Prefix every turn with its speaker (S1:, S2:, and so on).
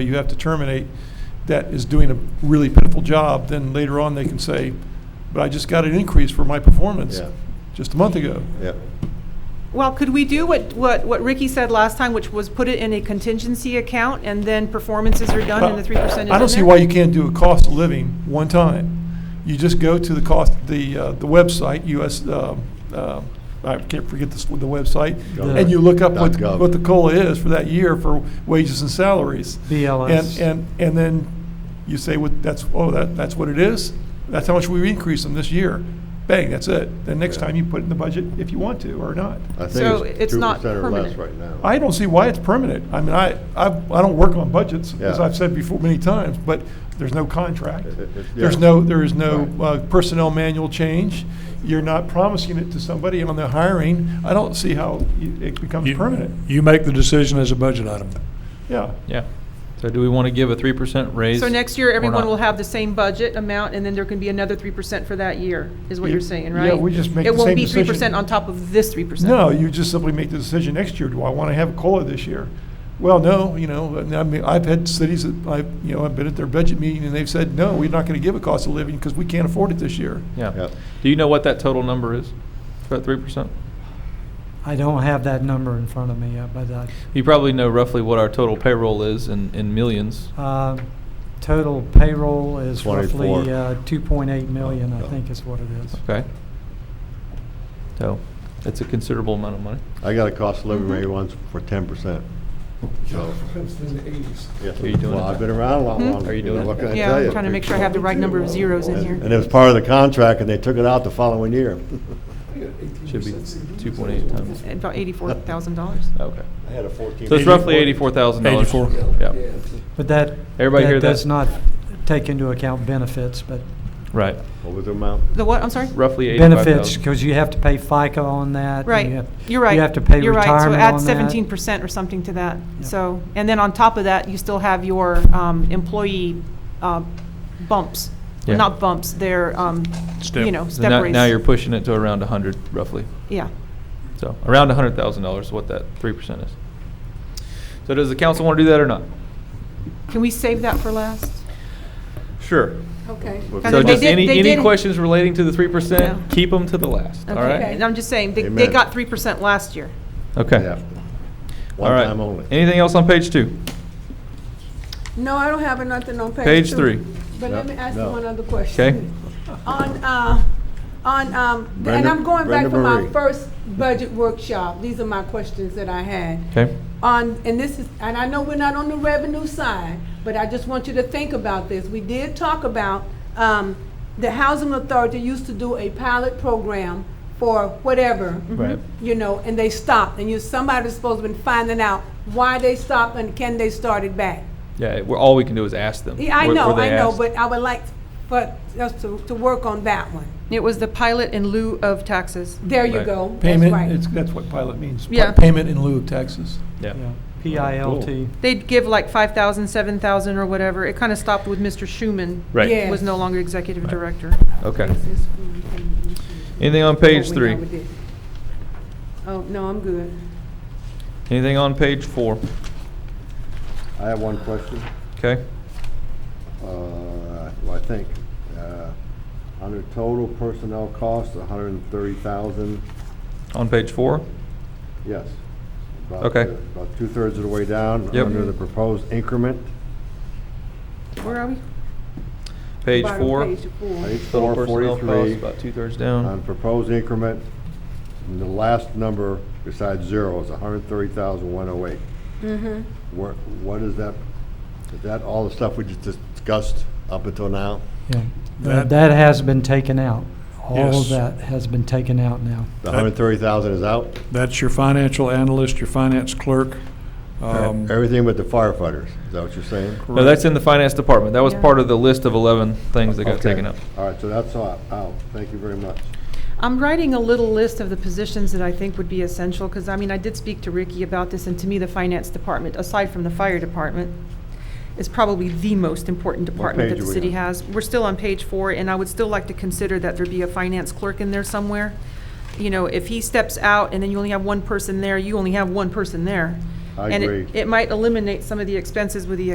S1: you have to terminate that is doing a really pitiful job, then later on they can say, but I just got an increase for my performance
S2: Yeah.
S1: just a month ago.
S2: Yeah,
S3: Well, could we do what, what, what Ricky said last time, which was put it in a contingency account and then performances are done and the three percent is in
S1: I don't see
S3: there?
S1: why you can't do a cost of living one time. You just go to the cost, the, uh, the website, US, um, uh, I can't forget this, the website,
S2: Gov.
S1: and you look up what,
S2: Gov.
S1: what the COLA is for that year for wages and salaries. And,
S4: BLS.
S1: and, and then you say, what, that's, oh, that, that's what it is? That's how much we increase them this year. Bang, that's it. Then next
S2: Yeah.
S1: time you put it in the budget if you want to or not.
S2: I
S3: So
S2: think it's
S3: it's
S2: two
S3: not
S2: percent or less
S3: permanent.
S2: right now.
S1: I don't see why it's permanent. I mean, I, I, I don't work on budgets, as
S2: Yeah.
S1: I've said before many times, but there's no contract.
S2: It- it- it-
S1: There's
S2: yeah.
S1: no, there is no
S2: Right.
S1: uh, personnel manual change. You're not promising it to somebody on the hiring. I don't see how you- it becomes
S5: You-
S1: permanent.
S5: You make the decision as a budget item.
S1: Yeah.
S6: Yeah. So do we want to give a three percent raise?
S3: So next year,
S6: or
S3: everyone
S6: not?
S3: will have the same budget amount and then there can be another three percent for that year, is what
S1: Yeah,
S3: you're saying,
S1: yeah,
S3: right?
S1: we just make the
S3: It
S1: same
S3: won't be three
S1: decision.
S3: percent on top of this three percent.
S1: No, you just simply make the decision next year, do I want to have a COLA this year? Well, no, you know, and I mean, I've had cities that I, you know, I've been at their budget meeting and they've said, no, we're not going to give a cost of living because we can't afford it this year.
S6: Yeah.
S2: Yeah.
S6: Do you know what that total number is? About three percent?
S4: I don't have that number in front of me, uh, but I-
S6: You probably know roughly what our total payroll is in, in millions.
S4: uh, total payroll is
S2: 24.
S4: roughly uh, 2.8 million, I
S2: Yeah.
S4: think is what it is.
S6: Okay. So it's a considerable amount of money.
S2: I got a cost of
S3: Mm-hmm.
S2: living rate once for ten percent. So, yeah.
S6: Are you doing
S2: Well,
S6: it?
S2: I've been around a lot
S3: Hmm?
S2: longer.
S6: Are you
S2: know,
S6: doing it?
S2: What can I
S3: Yeah,
S2: tell you?
S3: I'm trying to make sure I have the right number of zeros in here.
S2: And and it was part of the contract, and they took it out the following year.
S6: Should be two point eight times.
S3: About eighty-four thousand dollars.
S6: Okay.
S2: I had a fourteen.
S6: So it's roughly eighty-four thousand dollars.
S5: 84.
S6: Yeah,
S4: But that,
S6: Everybody hear
S4: that
S6: that?
S4: does not take into account benefits, but
S6: right.
S2: What was the amount?
S3: The what, I'm sorry?
S6: Roughly eighty-five thousand.
S4: benefits, because you have to pay FICA on that. and you
S3: Right,
S4: have-
S3: you're right.
S4: You have to pay
S3: You're
S4: retirement
S3: right.
S4: on that.
S3: So add seventeen percent or something to that,
S4: Yeah.
S3: so, and then on top of that, you still have your um, employee um, bumps,
S6: Yeah.
S3: not bumps, they're, um,
S5: Step.
S3: you know,
S6: So
S3: step
S6: now,
S3: raise.
S6: now you're pushing it to around a hundred roughly.
S3: Yeah.
S6: So around a hundred thousand dollars is what that three percent is. So does the council want to do that or not?
S3: Can we save that for last?
S6: Sure.
S7: Okay.
S3: And
S6: So
S3: they
S6: just
S3: did-
S6: any,
S3: they
S6: any
S3: did-
S6: questions relating to the three percent,
S3: No.
S6: keep them to the last, all
S7: Okay.
S6: right?
S3: And I'm just saying, they, they
S2: Amen.
S3: got three percent last year.
S6: Okay.
S2: Yeah.
S6: All
S2: One
S6: right.
S2: time only.
S6: Anything else on page two?
S7: No, I don't have nothing on page
S6: Page
S7: two.
S6: three.
S7: But let me ask you
S2: No.
S7: one other question. Okay. On, uh, on, um, th- and
S2: Brenda-
S7: I'm going
S2: Brenda
S7: back for my
S2: Marie.
S7: first budget workshop. These are my questions that I had.
S6: Okay,
S7: On, and this is, and I know we're not on the revenue side, but I just want you to think about this. We did talk about, um, the housing authority used to do a pilot program for whatever. Mm-hmm.
S6: Right.
S7: You know, and they stopped, and you, somebody's supposed to be finding out why they stopped and can they start it back.
S6: yeah, we're, all we can do is ask them.
S7: Yeah, I
S6: Were-
S7: know,
S6: were
S7: I
S6: they
S7: know,
S6: asked?
S7: but I would like, but us to, to work on that one.
S3: It was the pilot in lieu of taxes.
S7: There you
S6: Right.
S7: go. That's
S1: Payment,
S7: right.
S1: it's, that's what pilot means. pa-
S3: Yeah.
S1: Payment in lieu of taxes.
S6: Yeah,
S4: Yeah, PILT.
S3: They'd give like five thousand, seven thousand, or whatever. It kind of stopped with Mr. Schuman.
S6: right,
S7: Yeah.
S3: Was no longer executive
S6: Right.
S3: director.
S6: okay. Anything on page
S7: Oh, we
S6: three?
S7: know we did. Oh, no, I'm good.
S6: Anything on page four?
S2: I have one question.
S6: Okay,
S2: Uh, well, I think, uh, under total personnel costs, a hundred and thirty thousand,
S6: on page four?
S2: yes. About
S6: Okay.
S2: the- About two-thirds of the way down.
S6: Yep.
S2: Under the proposed increment,
S3: Where are we?
S6: Page
S7: Bottom
S6: four?
S7: Page four.
S2: page
S6: Total
S2: four
S6: personnel costs,
S2: forty-three.
S6: about two-thirds
S2: On
S6: down.
S2: proposed increment, and the last number besides zero is a hundred and thirty thousand, one oh eight. What, what is that, is that all the stuff we just discussed up until now?
S4: Yeah. That
S5: That-
S4: that has been taken out. All
S5: Yes.
S4: of that has been taken out now.
S2: The hundred and thirty thousand is out?
S5: That's your financial analyst, your finance clerk. um,
S2: Everything but the firefighters, is that what you're saying?
S6: No, that's in the finance department. That was
S3: Yeah.
S6: part of the list of eleven things that got
S2: Okay.
S6: taken up.
S2: All right, so that's all, out, thank you very much.
S3: I'm writing a little list of the positions that I think would be essential, because, I mean, I did speak to Ricky about this, and to me, the finance department, aside from the fire department, is probably the most important department
S2: page
S3: that the
S2: are we
S3: city
S2: on?
S3: has. We're still on page four, and I would still like to consider that there be a finance clerk in there somewhere. You know, if he steps out and then you only have one person there, you only have one person there.
S2: I
S3: And it-
S2: agree.
S3: it might eliminate some of the expenses with the